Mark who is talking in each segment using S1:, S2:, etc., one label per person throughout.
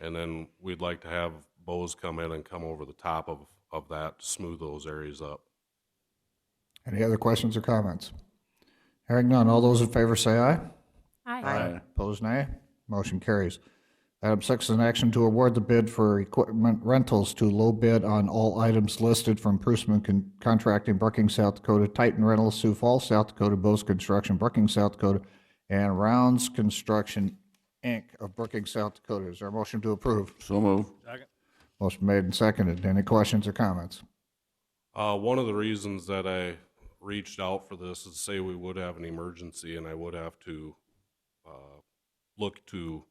S1: And then we'd like to have Bose come in and come over the top of, of that, smooth those areas up.
S2: Any other questions or comments? Hearing none, all those in favor say aye.
S3: Aye.
S2: Opposed, nay. Motion carries. Item six is an action to award the bid for equipment rentals to low bid on all items listed from Prusman Con- Contracting, Brookings, South Dakota, Titan Rentals, Sioux Falls, South Dakota, Bose Construction, Brookings, South Dakota, and Rounds Construction, Inc. of Brookings, South Dakota. Is there a motion to approve?
S3: So move.
S2: Motion made and seconded. Any questions or comments?
S1: Uh, one of the reasons that I reached out for this is say we would have an emergency and I would have to, uh, look to,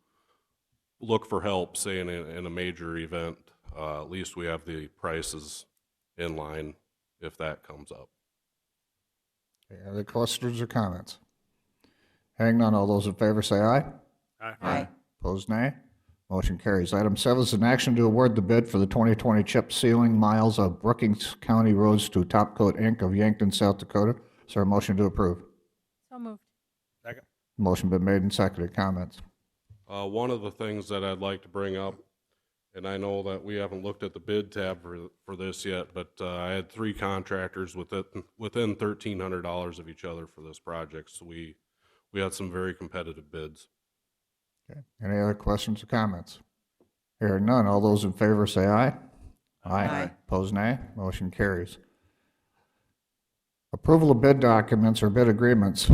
S1: look for help, say in a, in a major event. Uh, at least we have the prices in line if that comes up.
S2: Any other questions or comments? Hearing none, all those in favor say aye.
S3: Aye.
S2: Opposed, nay. Motion carries. Item seven is an action to award the bid for the 2020 chip sealing miles of Brookings County roads to Top Coat Inc. of Yankton, South Dakota. Is there a motion to approve?
S4: So moved.
S2: Motion been made and seconded. Comments?
S1: Uh, one of the things that I'd like to bring up, and I know that we haven't looked at the bid tab for, for this yet, but, uh, I had three contractors within, within thirteen hundred dollars of each other for this project, so we, we had some very competitive bids.
S2: Okay. Any other questions or comments? Hearing none, all those in favor say aye.
S3: Aye.
S2: Opposed, nay. Motion carries. Approval of bid documents or bid agreements,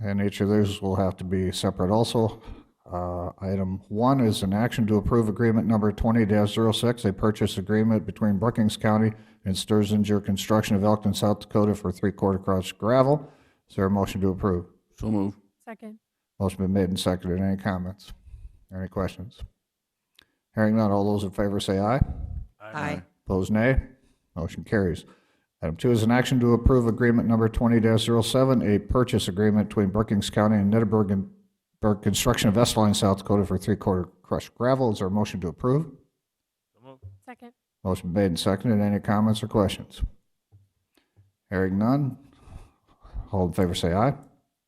S2: and each of those will have to be separate also. Uh, Item one is an action to approve agreement number 20-06, a purchase agreement between Brookings County and Sturzinger Construction of Elkton, South Dakota for three-quarter crush gravel. Is there a motion to approve?
S3: So move.
S4: Second.
S2: Motion been made and seconded. Any comments? Any questions? Hearing none, all those in favor say aye.
S3: Aye.
S2: Opposed, nay. Motion carries. Item two is an action to approve agreement number 20-07, a purchase agreement between Brookings County and Nettleburg and Berg Construction of Estline, South Dakota for three-quarter crushed gravel. Is there a motion to approve?
S4: Second.
S2: Motion made and seconded. Any comments or questions? Hearing none, all in favor say aye.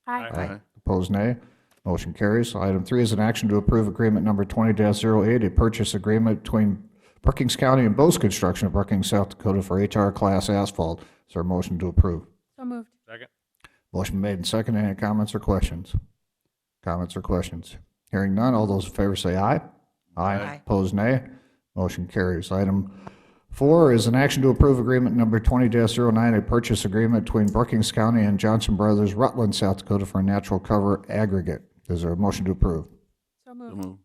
S4: Aye.
S2: Opposed, nay. Motion carries. Item three is an action to approve agreement number 20-08, a purchase agreement between Brookings County and Bose Construction of Brookings, South Dakota for HR Class Asphalt. Is there a motion to approve?
S4: So moved.
S2: Motion made and seconded. Any comments or questions? Comments or questions? Hearing none, all those in favor say aye.
S3: Aye.
S2: Opposed, nay. Motion carries. Item four is an action to approve agreement number 20-09, a purchase agreement between Brookings County and Johnson Brothers, Rutland, South Dakota for a natural cover aggregate. Is there a motion to approve?
S4: So
S3: So
S4: moved.
S3: move.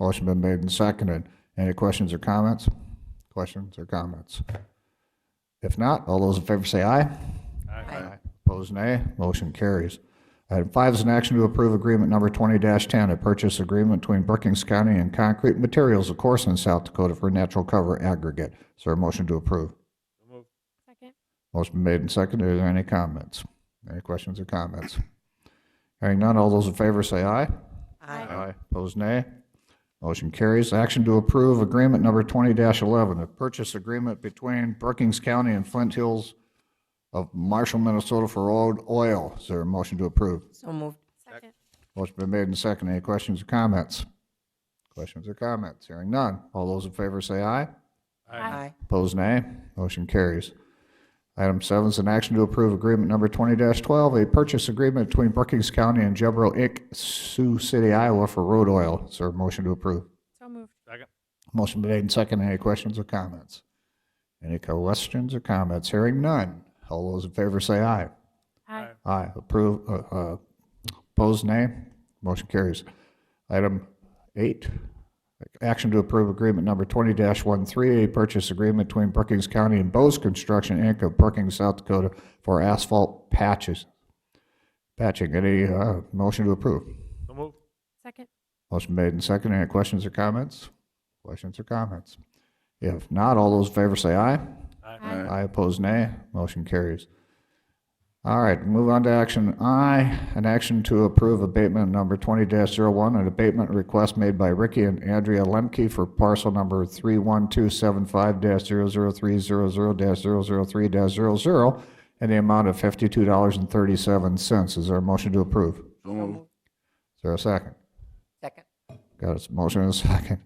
S2: Motion been made and seconded. Any questions or comments? Questions or comments? If not, all those in favor say aye. Aye. Opposed, nay. Motion carries. Item five is an action to approve agreement number 20-10, a purchase agreement between Brookings County and Concrete Materials of Corson, South Dakota for natural cover aggregate. Is there a motion to approve?
S4: Second.
S2: Motion been made and seconded. Are there any comments? Any questions or comments? Hearing none, all those in favor say aye.
S4: Aye.
S2: Aye. Opposed, nay. Motion carries. Action to approve agreement number 20-11, a purchase agreement between Brookings County and Flint Hills of Marshall, Minnesota for road oil. Is there a motion to approve?
S5: So moved.
S4: Second.
S2: Motion been made and seconded. Any questions or comments? Questions or comments? Hearing none. All those in favor say aye.
S5: Aye.
S2: Opposed, nay. Motion carries. Item seven is an action to approve agreement number 20-12, a purchase agreement between Brookings County and Jebro Inc., Sioux City, Iowa for road oil. Is there a motion to approve?
S4: So moved.
S2: Motion been made and seconded. Any questions or comments? Any questions or comments? Hearing none. All those in favor say aye.
S4: Aye.
S2: Aye. Approve, uh, uh, opposed, nay. Motion carries. Item eight, action to approve agreement number 20-13, a purchase agreement between Brookings County and Bose Construction, Inc. of Brookings, South Dakota for asphalt patches. Patching. Any uh, motion to approve?
S4: Second.
S2: Motion made and seconded. Any questions or comments? Questions or comments? If not, all those in favor say aye.
S4: Aye.
S2: Aye opposed, nay. Motion carries. All right, move on to action I, an action to approve abatement number 20-01, an abatement request made by Ricky and Andrea Lemke for parcel number oh 31275-00300-003-00, and oh the amount of $52.37. Is there a motion to approve? Is
S3: So move.
S2: there a second?
S5: Second.
S2: Got a motion and a second.